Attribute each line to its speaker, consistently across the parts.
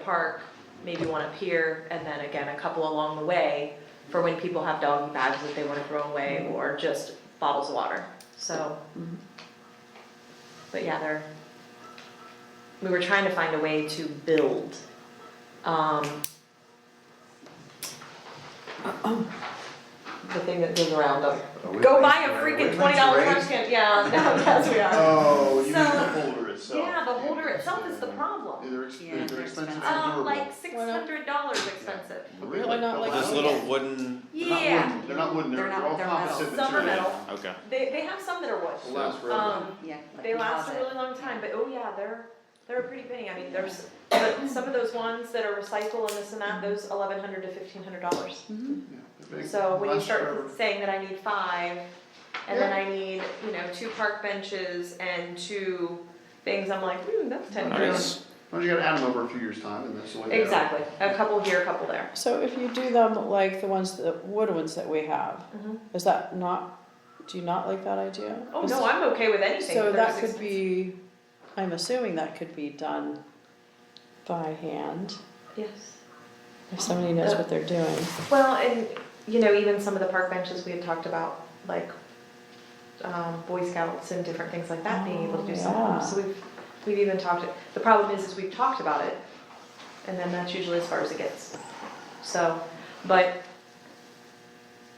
Speaker 1: park, maybe one up here, and then again, a couple along the way for when people have doggy bags that they wanna throw away or just bottles of water, so. But yeah, they're, we were trying to find a way to build, um, the thing that goes around them.
Speaker 2: Are we
Speaker 1: Go buy a
Speaker 2: raising- are
Speaker 1: freaking
Speaker 2: we
Speaker 1: twenty dollar
Speaker 2: raising-
Speaker 1: trash can, yeah, no, yes, we are.
Speaker 2: Oh, you mean the
Speaker 1: So-
Speaker 2: holder itself.
Speaker 1: Yeah, the holder itself is the problem.
Speaker 2: They're ex-
Speaker 3: Yeah,
Speaker 2: they're
Speaker 3: they're
Speaker 2: expensive
Speaker 3: expensive.
Speaker 2: and
Speaker 1: Um,
Speaker 2: durable.
Speaker 1: like six hundred dollars expensive.
Speaker 2: Really?
Speaker 4: They're not like-
Speaker 2: They're
Speaker 5: This little wooden,
Speaker 2: not
Speaker 1: Yeah,
Speaker 2: wooden. They're not wooden, they're,
Speaker 3: They're not-
Speaker 2: they're all
Speaker 3: they're metal.
Speaker 2: composite
Speaker 1: Some are
Speaker 2: material.
Speaker 1: metal.
Speaker 5: okay.
Speaker 1: they, they have some that are
Speaker 2: Will
Speaker 1: wood.
Speaker 2: Last forever.
Speaker 1: Um,
Speaker 3: Yeah. like
Speaker 1: they
Speaker 3: we
Speaker 1: last
Speaker 3: have
Speaker 1: a
Speaker 3: it.
Speaker 1: really long time, but oh yeah, they're, they're a pretty penny. I mean, there's, but some of those ones that are recycle and this and that, those eleven hundred to fifteen hundred dollars.
Speaker 3: Mhm.
Speaker 2: Yeah, they're big,
Speaker 1: So when you
Speaker 2: last
Speaker 1: start
Speaker 2: forever.
Speaker 1: saying that I need five, and then I need, you know, two park benches and two things, I'm like, hmm, that's ten grand.
Speaker 5: Nice.
Speaker 2: Well, you gotta add them over a few years' time and that's the way they are.
Speaker 1: Exactly, a couple here, a couple there.
Speaker 4: So if you do them like the ones, the wood ones that we have,
Speaker 1: Mhm.
Speaker 4: is that not, do you not like that idea?
Speaker 1: Oh,
Speaker 4: Is-
Speaker 1: no, I'm okay with anything.
Speaker 4: So
Speaker 1: if
Speaker 4: that
Speaker 1: there's
Speaker 4: could be, I'm assuming that could be done by hand,
Speaker 1: expense. Yes.
Speaker 4: if somebody knows what they're doing.
Speaker 1: Well, and, you know, even some of the park benches we had talked about, like, um, Boy Scouts and different things like that, being able to do some of them.
Speaker 4: Oh,
Speaker 1: So we've, we've even talked, the problem is, is we've talked about it, and then that's usually as far as it gets. So, but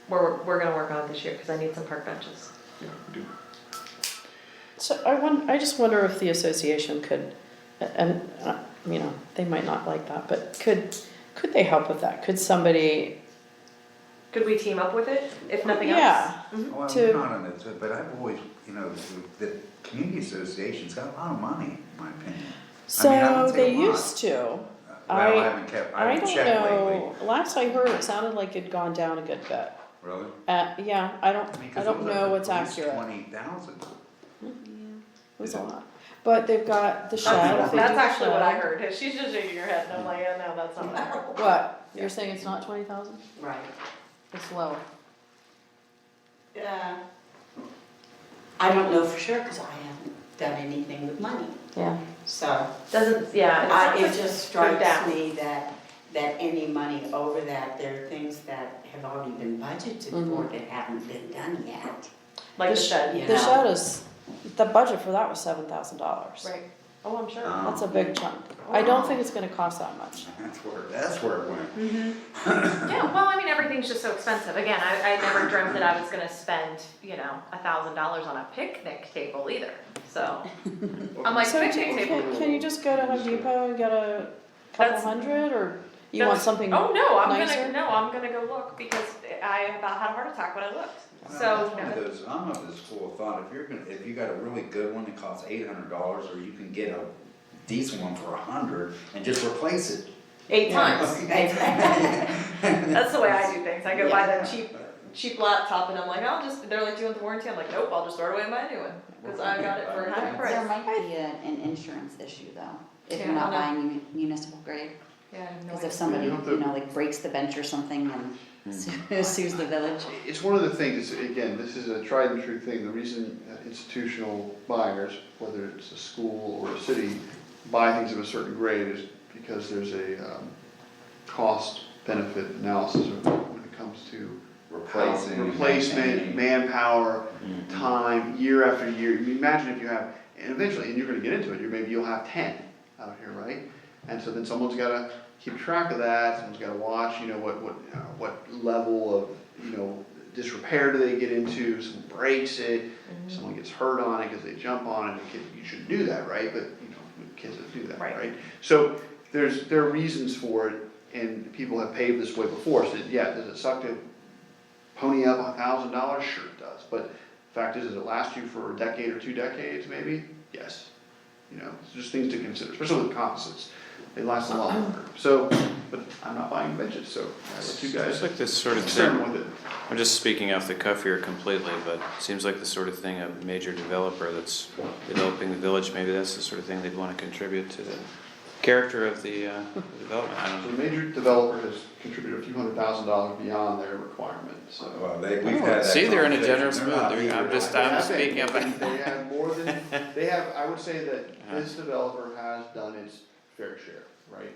Speaker 1: we're, we're gonna work on it this year, cause I need some park benches.
Speaker 2: Yeah, we do.
Speaker 4: So I won, I just wonder if the association could, and, uh, you know, they might not like that, but could, could they help with that? Could somebody,
Speaker 1: Could we team up with it, if nothing else?
Speaker 4: yeah,
Speaker 1: Mhm.
Speaker 6: Well,
Speaker 4: to-
Speaker 6: Oh, I'm not on this, but I've always, you know, the, the community association's got a lot of money, in my opinion. I mean, I
Speaker 4: so
Speaker 6: would
Speaker 4: they
Speaker 6: say a lot.
Speaker 4: used to.
Speaker 6: Well,
Speaker 4: I-
Speaker 6: I haven't kept, I
Speaker 4: I
Speaker 6: haven't
Speaker 4: don't
Speaker 6: checked lately.
Speaker 4: know, last I heard, it sounded like it'd gone down a good bit.
Speaker 6: Really?
Speaker 4: Uh, yeah, I don't,
Speaker 6: mean, 'cause
Speaker 4: I
Speaker 6: it
Speaker 4: don't
Speaker 6: was up
Speaker 4: know
Speaker 6: at
Speaker 4: what's
Speaker 6: least
Speaker 4: accurate, it
Speaker 6: Twenty thousand.
Speaker 4: was a lot, but they've got the shed,
Speaker 1: That's
Speaker 4: they do the
Speaker 1: that's actually what I
Speaker 4: shed.
Speaker 1: heard, she's just shaking her head, and I'm like, yeah, no, that's not what I heard.
Speaker 4: What, you're saying it's not twenty thousand,
Speaker 3: Right.
Speaker 4: it's lower?
Speaker 3: Yeah. I don't know for sure, cause I haven't done anything with money,
Speaker 4: Yeah.
Speaker 3: so.
Speaker 1: Doesn't, yeah, it
Speaker 3: I,
Speaker 1: sounds
Speaker 3: it
Speaker 1: like
Speaker 3: just
Speaker 1: they're down.
Speaker 3: strikes me that, that any money over that, there are things that have already been budgeted for
Speaker 7: Mm-hmm.
Speaker 4: Mhm.
Speaker 3: that haven't been done yet.
Speaker 1: Like the
Speaker 4: sh-
Speaker 1: shed, yeah.
Speaker 4: The
Speaker 3: yeah.
Speaker 4: shed is, the budget for that was seven thousand dollars.
Speaker 1: Right. Oh, I'm sure.
Speaker 6: Um,
Speaker 4: That's a big chunk, I don't think it's gonna cost that much.
Speaker 6: That's where, that's where it went.
Speaker 1: Yeah, well, I mean, everything's just so expensive. Again, I, I never dreamt that I was gonna spend, you know, a thousand dollars on a picnic table either, so. I'm like,
Speaker 4: So,
Speaker 1: picnic
Speaker 4: do-
Speaker 1: table.
Speaker 4: can, can you just go to Home Depot and get a couple
Speaker 1: That's-
Speaker 4: hundred, or you want
Speaker 1: That's-
Speaker 4: something nicer?
Speaker 1: Oh, no, I'm gonna, no, I'm gonna go look because I about had a heart attack when I looked, so.
Speaker 6: Well, that's one of those, I'm of the school of thought, if you're gonna, if you got a really good one that costs eight hundred dollars, or you can get a decent one for a hundred and just replace it.
Speaker 1: Eight
Speaker 6: you know?
Speaker 1: times. That's the way I do things. I go buy the cheap, cheap laptop and I'm like, I'll just, they're like, do you want the warranty? I'm like, nope, I'll just throw it away and buy a new one, cause I got it for half price.
Speaker 7: There might be a- an insurance issue though, if
Speaker 1: Yeah.
Speaker 7: you're not
Speaker 1: Yeah.
Speaker 7: buying mun- municipal grade.
Speaker 1: Yeah, I have no
Speaker 7: Because if
Speaker 1: idea.
Speaker 7: somebody,
Speaker 2: you
Speaker 7: you
Speaker 2: don't
Speaker 7: know, like breaks the bench or something and su- sues the village.
Speaker 2: It's one of the things, again, this is a tried and true thing, the reason that institutional buyers, whether it's a school or a city, buy things of a certain grade is because there's a um, cost benefit analysis when it comes to
Speaker 6: Replacing.
Speaker 2: replacement,
Speaker 6: maintaining.
Speaker 2: manpower, time, year after year. I mean, imagine if you have, and eventually, and you're gonna get into it, you maybe you'll have ten out here, right? And so then someone's gotta keep track of that, someone's gotta watch, you know, what, what, uh, what level of, you know, disrepair do they get into, someone breaks it, someone gets hurt on it because they jump on it, and kid, you shouldn't do that, right? But, you know, kids don't do that,
Speaker 1: Right.
Speaker 2: right? So there's, there are reasons for it, and people have paved this way before, so yeah, does it suck to pony up a thousand dollars? Sure it does, but fact is, does it last you for a decade or two decades maybe? Yes. You know, it's just things to consider, especially with composites, they last a lot longer, so, but I'm not buying benches, so I let you
Speaker 5: Seems
Speaker 2: guys
Speaker 5: like this sort of thing,
Speaker 2: experiment with it.
Speaker 5: I'm just speaking off the cuff here completely, but seems like the sort of thing a major developer that's developing the village, maybe that's the sort of thing they'd want to contribute to the character of the uh, development, I
Speaker 2: So
Speaker 5: don't
Speaker 2: the
Speaker 5: know.
Speaker 2: major developer has contributed a few hundred thousand dollars beyond their requirement, so.
Speaker 6: Well, they, we've had that.
Speaker 5: See, they're in a generous
Speaker 6: conversation. They're not
Speaker 5: mood. They're- I'm
Speaker 6: eager.
Speaker 5: just-
Speaker 2: Yeah, I think
Speaker 5: speaking up.
Speaker 2: They have more than, they have, I would say that this developer has done its fair share, right?